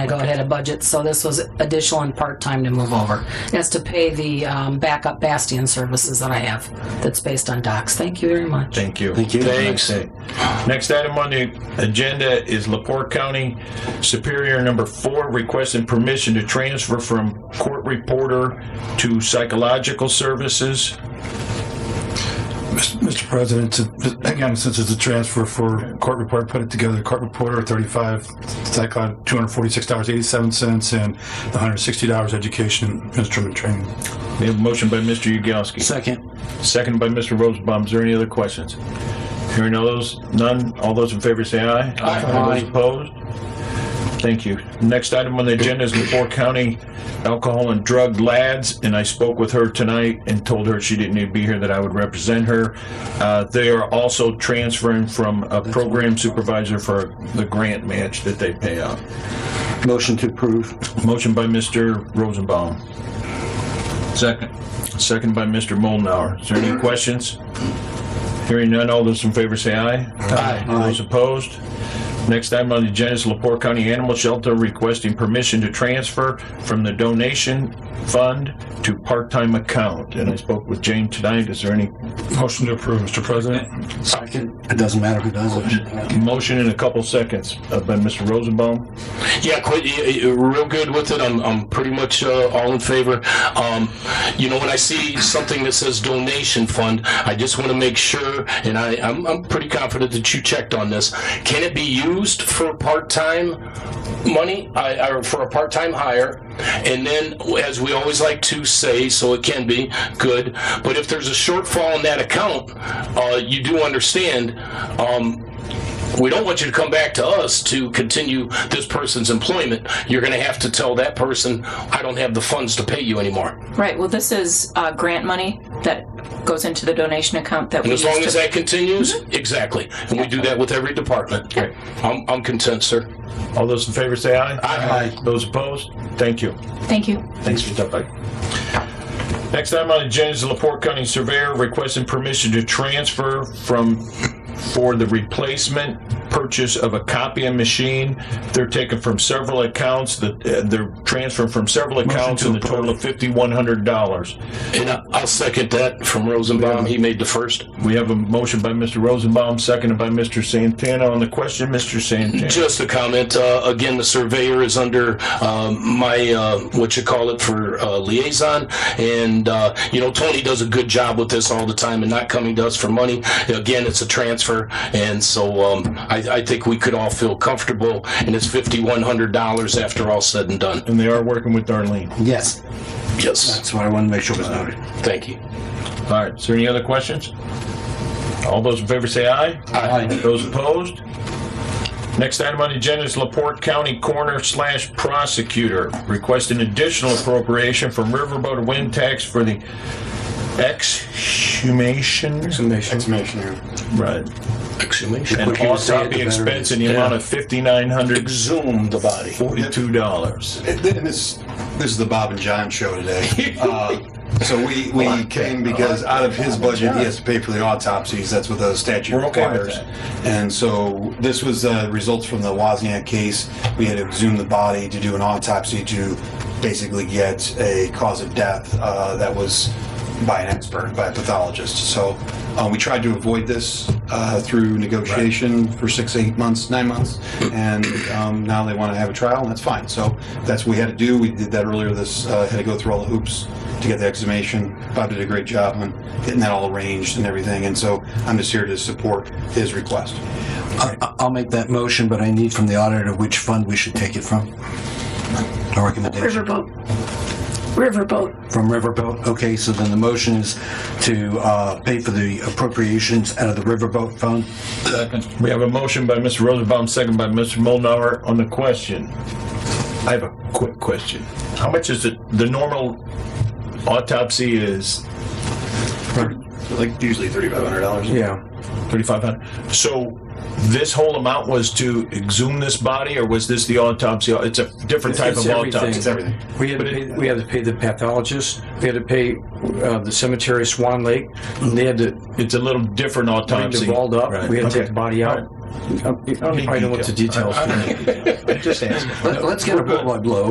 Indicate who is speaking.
Speaker 1: I go ahead of budget, so this was additional and part-time to move over. That's to pay the um, backup bastion services that I have, that's based on docs. Thank you very much.
Speaker 2: Thank you.
Speaker 3: Thank you.
Speaker 2: Thanks. Next item on the agenda is Laporte County Superior Number Four requesting permission to transfer from court reporter to psychological services.
Speaker 4: Mr. President, to- again, since it's a transfer for court report, put it together, court reporter, 35, psychon, $246.87, and the $160 education instrument training.
Speaker 2: We have a motion by Mr. Yagowski,
Speaker 3: Second.
Speaker 2: seconded by Mr. Rosenbaum. Is there any other questions? Hearing all those, none, all those in favor say aye. All those opposed? Thank you. Next item on the agenda is Laporte County Alcohol and Drug Lads, and I spoke with her tonight and told her she didn't need to be here, that I would represent her. Uh, They are also transferring from a program supervisor for the grant match that they pay out.
Speaker 3: Motion to approve.
Speaker 2: Motion by Mr. Rosenbaum. Second. Second by Mr. Molnauer. Is there any questions? Hearing none, all those in favor say aye. Aye. Those opposed? Next item on the agenda is Lepore County Animal Shelter requesting permission to transfer from the donation fund to part-time account. And I spoke with Jane tonight. Is there any
Speaker 4: Motion to approve, Mr. President.
Speaker 3: Second. It doesn't matter who does it.
Speaker 2: motion in a couple seconds uh, by Mr. Rosenbaum?
Speaker 5: Yeah, quite, y- y- real good with it. I'm, I'm pretty much uh, all in favor. Um, you know, when I see something that says donation fund, I just want to make sure, and I, I'm, I'm pretty confident that you checked on this. Can it be used for part time money I, or for a part time hire? And then, as we always like to say, so it can be good. But if there's a shortfall in that account, uh, you do understand. Um, we don't want you to come back to us to continue this person's employment. You're going to have to tell that person, I don't have the funds to pay you anymore.
Speaker 6: Right, well, this is uh, grant money that goes into the donation account that we
Speaker 5: And
Speaker 6: use
Speaker 5: as long as
Speaker 6: to...
Speaker 5: that continues, exactly. And we do that with every department. I'm, I'm content, sir.
Speaker 2: All those in favor say aye.
Speaker 5: Aye.
Speaker 2: Those opposed? Thank you.
Speaker 6: Thank you.
Speaker 2: Thanks for stopping by. Next item on the agenda is the Laporte County Surveyor requesting permission to transfer from, for the replacement purchase of a copying machine. They're taken from several accounts, the- uh, they're transferring from several accounts in the total of $5,100.
Speaker 5: And I- I'll second that from Rosenbaum. He made the first.
Speaker 2: We have a motion by Mr. Rosenbaum, seconded by Mr. Santana on the question. Mr. Santana.
Speaker 5: Just a comment. Uh, again, the surveyor is under um, my uh, what you call it for uh, liaison, and uh, you know Tony does a good job with this all the time, and not coming to us for money. Again, it's a transfer, and so um, I, I think we could all feel comfortable. And it's fifty one hundred dollars after all said and done.
Speaker 2: And they are working with Darlene.
Speaker 3: Yes.
Speaker 5: Yes,
Speaker 3: That's what I wanted to make sure was noted.
Speaker 5: thank you.
Speaker 2: All right, is there any other questions? All those in favor say aye.
Speaker 3: Aye.
Speaker 2: Those opposed? Next item on the agenda is Laporte County Coroner slash Prosecutor requesting additional appropriation from Riverboat Wind Tax for the exhumation, right,
Speaker 5: Exhumation.
Speaker 2: and
Speaker 3: quicker you say it,
Speaker 2: autopsy
Speaker 3: the better it
Speaker 2: expense
Speaker 3: is.
Speaker 2: in the amount of $5,942.
Speaker 5: Exhume the body.
Speaker 7: And th- and this, this is the Bob and John show today. Uh, So we, we came because out of his budget, he has to pay for the autopsies. That's what the statute
Speaker 2: We're okay with
Speaker 7: requires. And so this was uh, results from the Wozniak case. We had to exhume the body to do an autopsy to basically get a cause of death uh, that was by an expert, by a pathologist. So uh, we tried to avoid this uh, through negotiation for six, eight months, nine months, and um, now they want to have a trial, and that's fine. So that's what we had to do. We did that earlier. This uh, had to go through all the hoops to get the exhumation. Bob did a great job on getting that all arranged and everything, and so I'm just here to support his request.
Speaker 3: I- I- I'll make that motion, but I need from the auditor which fund we should take it from. A recommendation.
Speaker 8: Riverboat. Riverboat.
Speaker 3: From Riverboat. Okay, so then the motion is to uh, pay for the appropriations out of the Riverboat fund.
Speaker 2: We have a motion by Mr. Rosenbaum, second by Mr. Molnauer on the question. I have a quick question. How much is it, the normal autopsy is
Speaker 7: Like usually thirty-five hundred dollars.
Speaker 3: Yeah.
Speaker 2: 3,500? So this whole amount was to exhume this body or was this the autopsy? It's a different type
Speaker 9: It's
Speaker 2: of
Speaker 9: everything.
Speaker 2: autopsy.
Speaker 7: It's everything.
Speaker 9: We had, to pay, we had to pay the pathologist. We had to pay uh, the cemetery, Swan Lake. They had to
Speaker 2: It's a little different
Speaker 9: bring the
Speaker 2: autopsy.
Speaker 9: vault up. We had to take the body out.
Speaker 10: I don't
Speaker 9: need
Speaker 10: know what the details.
Speaker 9: I'm just asking.
Speaker 2: Let- Let's get a blood blow